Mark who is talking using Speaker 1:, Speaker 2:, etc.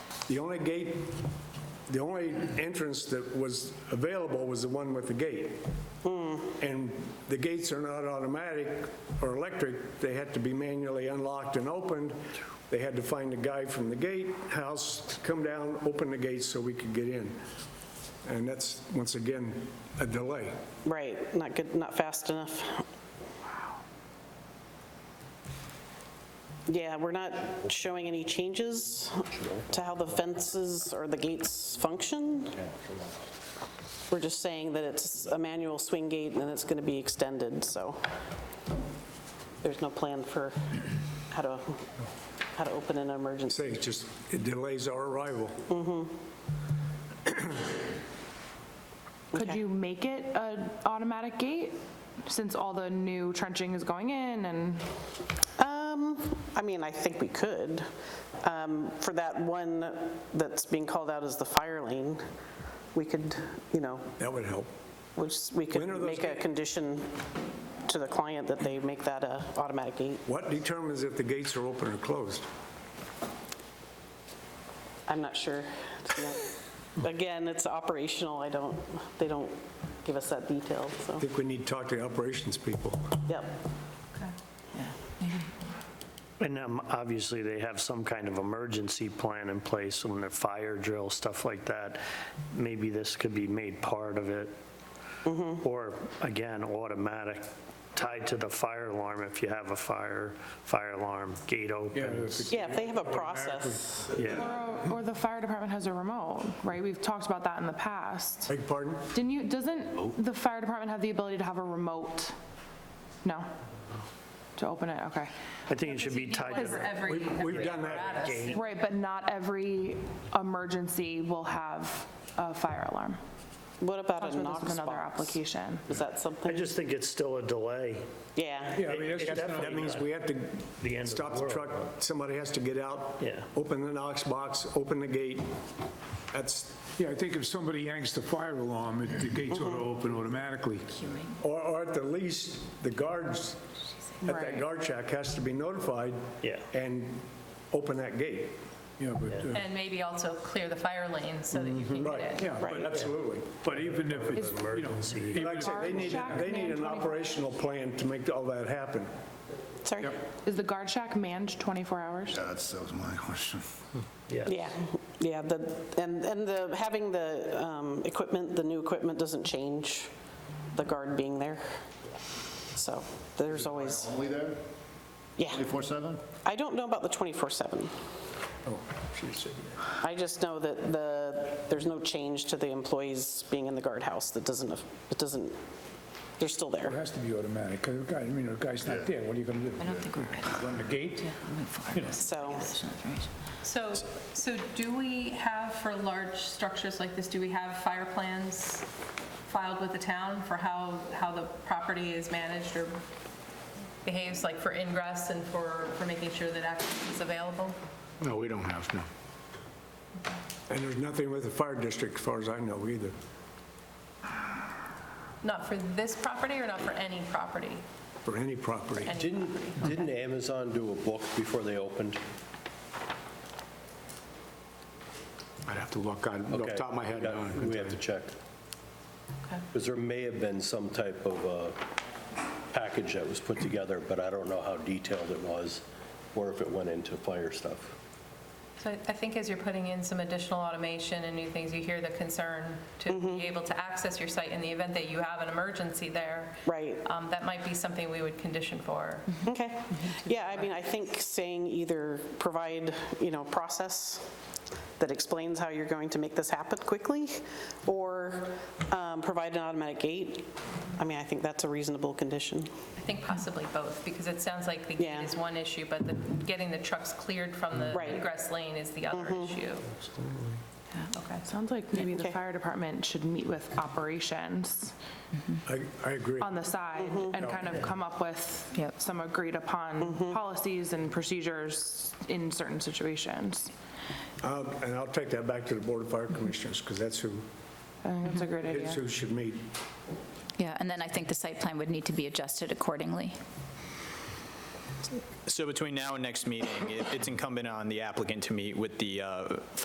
Speaker 1: The only gate, the only entrance that was available was the one with the gate. And the gates are not automatic or electric, they had to be manually unlocked and opened. They had to find a guy from the gatehouse, come down, open the gates so we could get in. And that's, once again, a delay.
Speaker 2: Right, not good, not fast enough. Yeah, we're not showing any changes to how the fences or the gates function. We're just saying that it's a manual swing gate and it's going to be extended, so there's no plan for how to, how to open an
Speaker 1: Say,
Speaker 2: emergency.
Speaker 1: it's just, it delays our arrival.
Speaker 3: Could
Speaker 2: Okay.
Speaker 3: you make it an automatic gate, since all the new trenching is going in and,
Speaker 2: Um, I mean, I think we could. Um, For that one that's being called out as the fire lane, we could, you know,
Speaker 1: That would help.
Speaker 2: we just- we could
Speaker 1: When are those
Speaker 2: make a
Speaker 1: ga-
Speaker 2: condition to the client that they make that a automatic gate.
Speaker 1: What determines if the gates are open or closed?
Speaker 2: I'm not sure. It's not- Again, it's operational, I don't, they don't give us that detail, so,
Speaker 1: I think we need to talk to the operations people.
Speaker 2: yep.
Speaker 4: And um, obviously, they have some kind of emergency plan in place when they're fire drill, stuff like that. Maybe this could be made part of it. Or again, automatic, tied to the fire alarm if you have a fire, fire alarm, gate opens.
Speaker 2: Yeah, if they have a process,
Speaker 4: Yeah,
Speaker 3: or or the fire department has a remote, right? We've talked about that in the past.
Speaker 1: Beg your pardon?
Speaker 3: Didn't you, doesn't the fire department have the ability to have a remote? No? To open it, okay.
Speaker 4: I think it should be tied to
Speaker 3: Because
Speaker 4: the
Speaker 5: every,
Speaker 1: We've- We've done that.
Speaker 4: gate.
Speaker 3: Right, but not every emergency will have a fire alarm.
Speaker 2: what about
Speaker 3: That's
Speaker 2: a
Speaker 3: where this
Speaker 2: Knox
Speaker 3: is another
Speaker 2: box?
Speaker 3: application.
Speaker 2: Is that
Speaker 4: I
Speaker 2: something?
Speaker 4: just think it's still a delay.
Speaker 2: Yeah.
Speaker 1: Yeah, I mean, that's- that means we have
Speaker 4: The end
Speaker 1: to
Speaker 4: of the
Speaker 1: stop the
Speaker 4: world.
Speaker 1: truck, somebody has to get out,
Speaker 4: Yeah.
Speaker 1: open the Knox box, open the gate. That's,
Speaker 6: Yeah, I think if somebody yanks the fire alarm, it- the gates ought to open automatically.
Speaker 1: or, or at the least, the guards at that
Speaker 3: Right.
Speaker 1: guard shack has to be notified.
Speaker 4: Yeah.
Speaker 1: And open that gate.
Speaker 6: Yeah, but, uh,
Speaker 5: And maybe also clear the fire lanes so that you can get
Speaker 1: Right,
Speaker 5: it.
Speaker 6: yeah, but-
Speaker 1: absolutely.
Speaker 6: but even if it's, you know, even
Speaker 1: Like I
Speaker 6: if
Speaker 1: said, they need,
Speaker 3: Shack
Speaker 1: they need
Speaker 3: man
Speaker 1: an
Speaker 3: 24.
Speaker 1: operational plan to make all that happen.
Speaker 2: Sorry?
Speaker 3: Is the guard shack manned 24 hours?
Speaker 7: That's, that was my question.
Speaker 2: Yeah, yeah, the, and, and the, having the um, equipment, the new equipment doesn't change the guard being there. So there's always,
Speaker 7: Only there,
Speaker 2: yeah.
Speaker 7: 24/7?
Speaker 2: I don't know about the 24/7.
Speaker 7: Oh,
Speaker 2: I just know that the, there's no change to the employees being in the guardhouse. That doesn't, it doesn't, they're still
Speaker 6: it
Speaker 2: there.
Speaker 6: has to be automatic, because the guy, I mean, the guy's not there, what are you going to do? I don't think we're ready. Run the gate?
Speaker 2: So,
Speaker 5: So, so do we have for large structures like this, do we have fire plans filed with the town for how, how the property is managed or behaves, like for ingress and for, for making sure that access is available?
Speaker 6: No, we don't have, no.
Speaker 1: And there's nothing with the fire district, as far as I know, either.
Speaker 5: Not for this property or not for any property?
Speaker 1: for any property.
Speaker 5: Any
Speaker 8: Didn't,
Speaker 5: property?
Speaker 8: didn't Amazon do a book before they opened?
Speaker 9: I'd have to look, I off the
Speaker 8: Okay,
Speaker 9: top of my head.
Speaker 8: we
Speaker 9: I
Speaker 8: got-
Speaker 9: don't know.
Speaker 8: We have to check.
Speaker 5: Okay.
Speaker 8: Because there may have been some type of uh, package that was put together, but I don't know how detailed it was, or if it went into fire stuff.
Speaker 5: So I- I think as you're putting in some additional automation and new things, you hear the concern to be able to access your site in the event that you have an emergency there.
Speaker 2: right.
Speaker 5: Um, That might be something we would condition for.
Speaker 2: Okay. Yeah, I mean, I think saying either provide, you know, process that explains how you're going to make this happen quickly, or um, provide an automatic gate, I mean, I think that's a reasonable condition.
Speaker 5: I think possibly both, because it sounds like the gate
Speaker 2: Yeah.
Speaker 5: is one issue, but the- getting the trucks cleared from the
Speaker 2: Right. Mm-hmm.
Speaker 5: ingress lane is the other issue. Okay.
Speaker 3: Sounds like maybe the
Speaker 2: Okay.
Speaker 3: fire department should meet with operations
Speaker 1: I, I agree.
Speaker 3: on the side and kind of come up with some agreed upon policies and procedures in certain situations.
Speaker 1: Um, And I'll take that back to the Board of Fire Commissioners, because that's who,
Speaker 3: I think that's a great
Speaker 1: that's
Speaker 3: idea.
Speaker 1: who should meet.
Speaker 10: Yeah, and then I think the site plan would need to be adjusted accordingly.
Speaker 11: So between now and next meeting, it- it's incumbent on the applicant to meet with the uh,